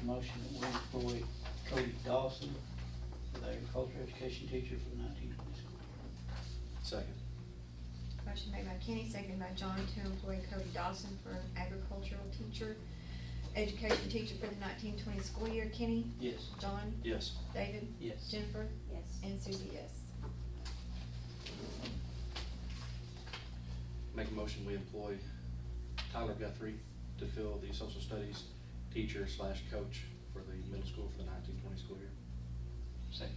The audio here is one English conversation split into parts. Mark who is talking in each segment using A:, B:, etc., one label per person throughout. A: a motion that we employ Cody Dawson as agricultural education teacher for the nineteen twenty school year.
B: Second.
C: Motion made by Kenny, seconded by John to employ Cody Dawson for an agricultural teacher, education teacher for the nineteen twenty school year. Kenny?
A: Yes.
C: John?
B: Yes.
C: David?
A: Yes.
C: Jennifer?
D: Yes.
C: And Susie, yes.
B: Make a motion, we employ Tyler Guthrie to fill the social studies teacher slash coach for the middle school for the nineteen twenty school year.
A: Second.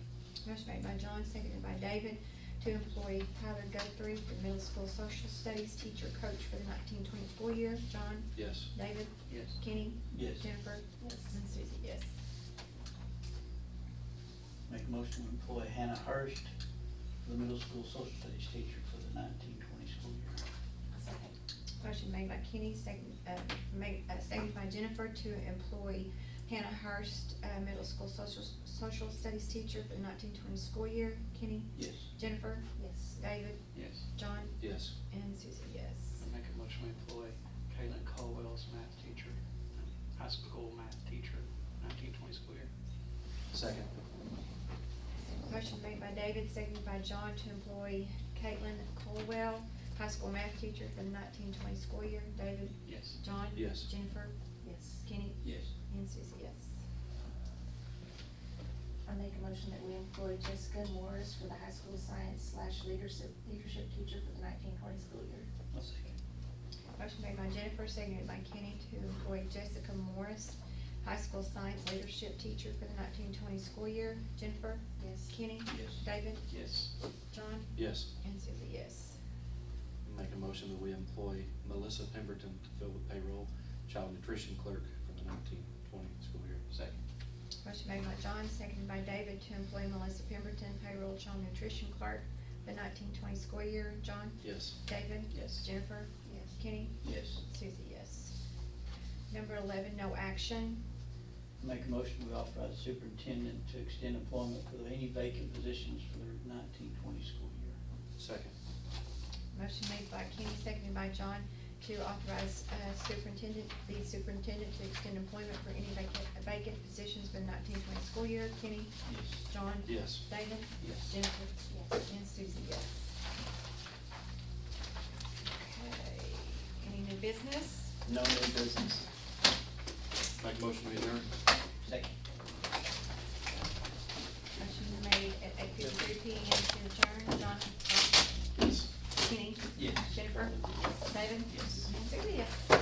C: Motion made by John, seconded by David to employ Tyler Guthrie for middle school social studies teacher coach for the nineteen twenty school year. John?
B: Yes.
C: David?
A: Yes.
C: Kenny?
A: Yes.
C: Jennifer?
D: Yes.
C: And Susie, yes.
A: Make a motion to employ Hannah Hurst for the middle school social studies teacher for the nineteen twenty school year.
D: Second.
C: Motion made by Kenny, second, uh, made, uh, seconded by Jennifer to employ Hannah Hurst, uh, middle school social, social studies teacher for the nineteen twenty school year. Kenny?
A: Yes.
C: Jennifer?
D: Yes.
C: David?
E: Yes.
C: John?
B: Yes.
C: And Susie, yes.
E: I make a motion we employ Kaylin Caldwell as math teacher, um, high school math teacher, nineteen twenty school year.
B: Second.
C: Motion made by David, seconded by John to employ Caitlin Colwell, high school math teacher for the nineteen twenty school year. David?
E: Yes.
C: John?
B: Yes.
C: Jennifer?
D: Yes.
C: Kenny?
A: Yes.
C: And Susie, yes.
D: I make a motion that we employ Jessica Morris for the high school science slash leadership, leadership teacher for the nineteen twenty school year.
A: I'll second.
C: Motion made by Jennifer, seconded by Kenny to employ Jessica Morris, high school science leadership teacher for the nineteen twenty school year. Jennifer?
D: Yes.
C: Kenny?
A: Yes.
C: David?
E: Yes.
C: John?
B: Yes.
C: And Susie, yes.
B: Make a motion that we employ Melissa Pemberton to fill the payroll child nutrition clerk for the nineteen twenty school year.
E: Second.
C: Motion made by John, seconded by David to employ Melissa Pemberton, payroll child nutrition clerk for the nineteen twenty school year. John?
B: Yes.
C: David?
E: Yes.
C: Jennifer?
D: Yes.
C: Kenny?
A: Yes.
C: Susie, yes. Number eleven, no action.
A: Make a motion we authorize the superintendent to extend employment for any vacant positions for the nineteen twenty school year.
B: Second.
C: Motion made by Kenny, seconded by John, to authorize uh, superintendent, the superintendent to extend employment for any vacant, vacant positions for the nineteen twenty school year. Kenny?
A: Yes.
C: John?
B: Yes.
C: David?
A: Yes.
C: Jennifer?
D: Yes.
C: And Susie, yes. Okay, any new business?
A: No new business.
B: Make a motion we adjourn.
A: Second.
C: Motion made at eight fifty-three P M to adjourn. John?
B: Yes.
C: Kenny?
A: Yes.
C: Jennifer? David?
A: Yes.
C: And Susie, yes.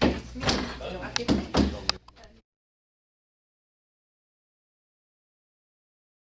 C: Thanks, meeting.
A: Boom.
C: I'll give it.